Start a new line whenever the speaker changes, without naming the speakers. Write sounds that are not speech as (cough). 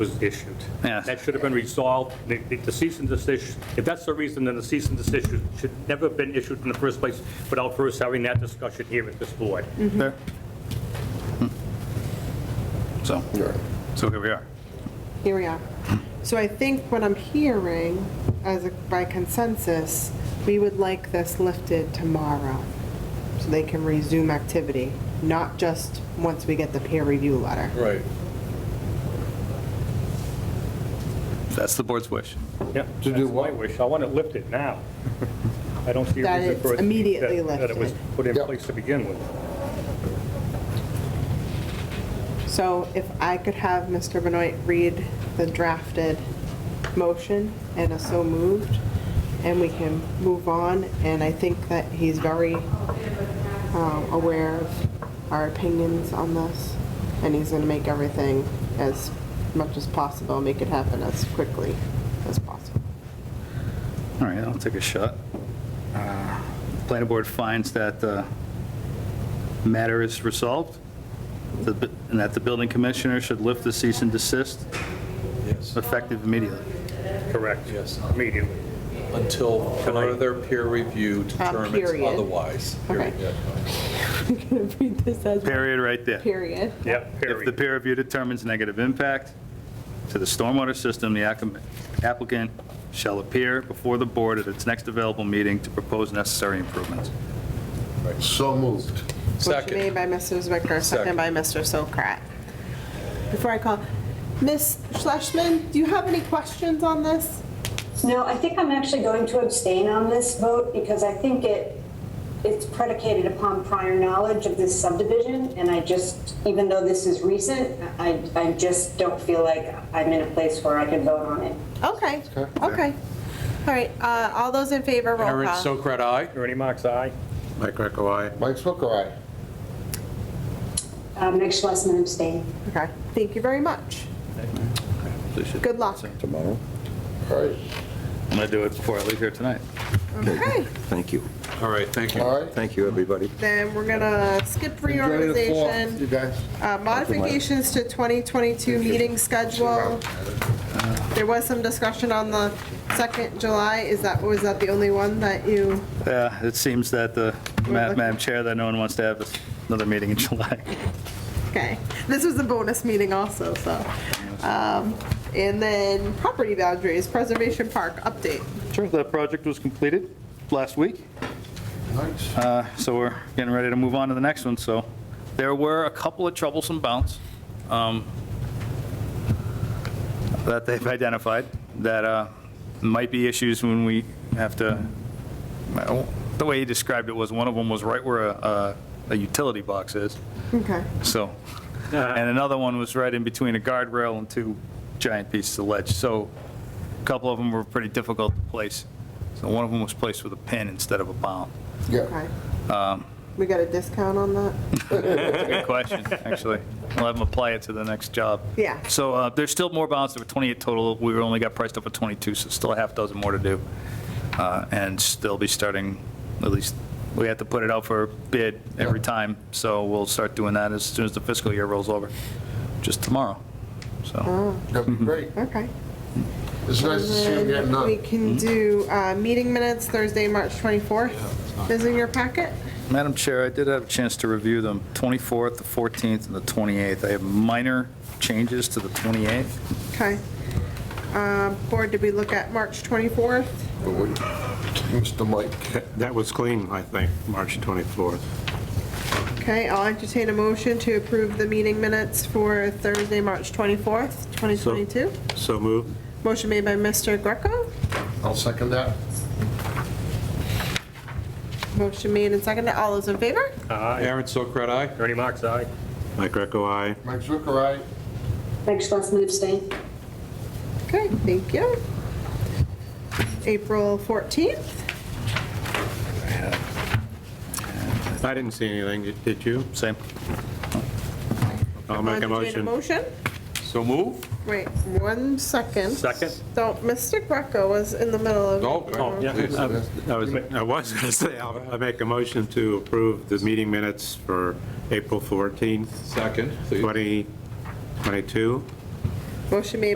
was issued.
Yes.
That should have been resolved. The- The the cease and desist, if that's the reason, then the cease and desist should- should never have been issued in the first place without first having that discussion here at this board.
Mm-hmm.
Fair. So, so here we are.
Here we are. So I think what I'm hearing, as a- by consensus, we would like this lifted tomorrow, so they can resume activity, not just once we get the peer review letter.
Right.
That's the board's wish.
Yeah,
To do
that's my
what?
wish. I want it lifted now. I don't see a
That
reason
it's
for it. to be-
immediately
that- That it
lifted.
was put in
Yep.
place to begin with.
So if I could have Mr. Benoit read the drafted motion and a so moved, and we can move on, and I think that he's very um, aware of our opinions on this, and he's gonna make everything as much as possible, make it happen as quickly as possible. (laughs)
All right, I'll take a shot. Uh, Planning board finds that the matter is resolved, the bu- and that the building commissioner should lift the cease and desist
Yes,
effective immediately.
Correct.
yes.
Immediately.
Until further peer review determines
Uh, period.
otherwise.
Okay.
Period.
I'm gonna read this as
Period, right there.
period.
Yep,
If the
period.
peer review determines negative impact to the stormwater system, the acc- applicant shall appear before the board at its next available meeting to propose necessary improvements.
So moved.
Motion made
Second,
by Mr. Zwicker, second
Second.
by Mr. Sokrat. Before I call, Ms. Schlesman, do you have any questions on this?
No, I think I'm actually going to abstain on this vote because I think it, it's predicated upon prior knowledge of this subdivision. And I just, even though this is recent, I, I just don't feel like I'm in a place where I can vote on it.
Okay, okay. All right, uh, all those in favor, roll
Aaron
call.
Sokrat, aye?
Ernie Mac's aye.
Mike Greco, aye.
Mike Swicker, aye.
Uh, Meg Schlesman abstain.
Okay, thank you very much. Good luck.
Tomorrow?
All right,
I'm going to do it before I leave here tonight.
Okay,
Thank you.
All right, thank you.
all right.
Thank you, everybody.
then we're gonna skip
Enjoy the fall, You
reorganization.
guys.
Uh, Modifications to 2022 meeting schedule. There was some discussion on the 2nd July. Is that, was that the only one that you?
Yeah, it seems that the, Ma-
lucky.
Madam Chair, that no one wants to have another meeting in (laughs) July.
Okay, this was a bonus meeting also, so. Um, And then property boundaries, Preservation Park update.
Sure, that project was completed last week.
Nice.
Uh, So we're getting ready to move on to the next one, so there were a couple of troublesome bounds um, that they've identified that uh, might be issues when we have to, I don't- the way he described it was, one of them was right where a- a a utility box is,
Okay.
so, and another one was right in between a guardrail and two giant pieces of ledge, so a couple of them were pretty difficult to place. So one of them was placed with a pin instead of a bound.
Yeah,
Okay. We got a discount on that?
Good question, actually. I'll have them apply it to the next job.
Yeah.
So uh, there's still more balance, there were 28 total, we only got priced up at 22, so still a half dozen more to do. Uh, And still be starting, at least, we have to put it out for bid every
Yeah.
time, so we'll start doing that as soon as the fiscal year rolls over, just tomorrow, so.
that'd be great.
Okay.
It's nice to see him getting up.
We can do uh, meeting minutes Thursday, March 24th. Is in your packet?
Madam Chair, I did have a chance to review them, 24th, the 14th, and the 28th. I have minor changes to the 28th.
Okay. Uh, Board, did we look at March 24th?
But we- Mr. Mike,
That was clean, I think, March 24th.
Okay, I'll entertain a motion to approve the meeting minutes for Thursday, March 24th, 2022.
So moved.
Motion made by Mr. Greco.
I'll second that.
Motion made and seconded. All those in favor?
Aye.
Aaron Sokrat, aye?
Ernie Mac's aye.
Mike Greco, aye.
Mike Swicker, aye.
Meg Schlesman abstain.
Okay, thank you. April 14th?
I didn't see anything, did you?
Same.
I'll make a
Entertain
motion.
motion?
So move?
Wait, one second.
Second?
So Mr. Greco was in the middle of.
Oh, oh, yeah.
I I was, I was going to say, I'll- I make a motion to approve the meeting minutes for April 14th,
Second, please.
2022.
Motion made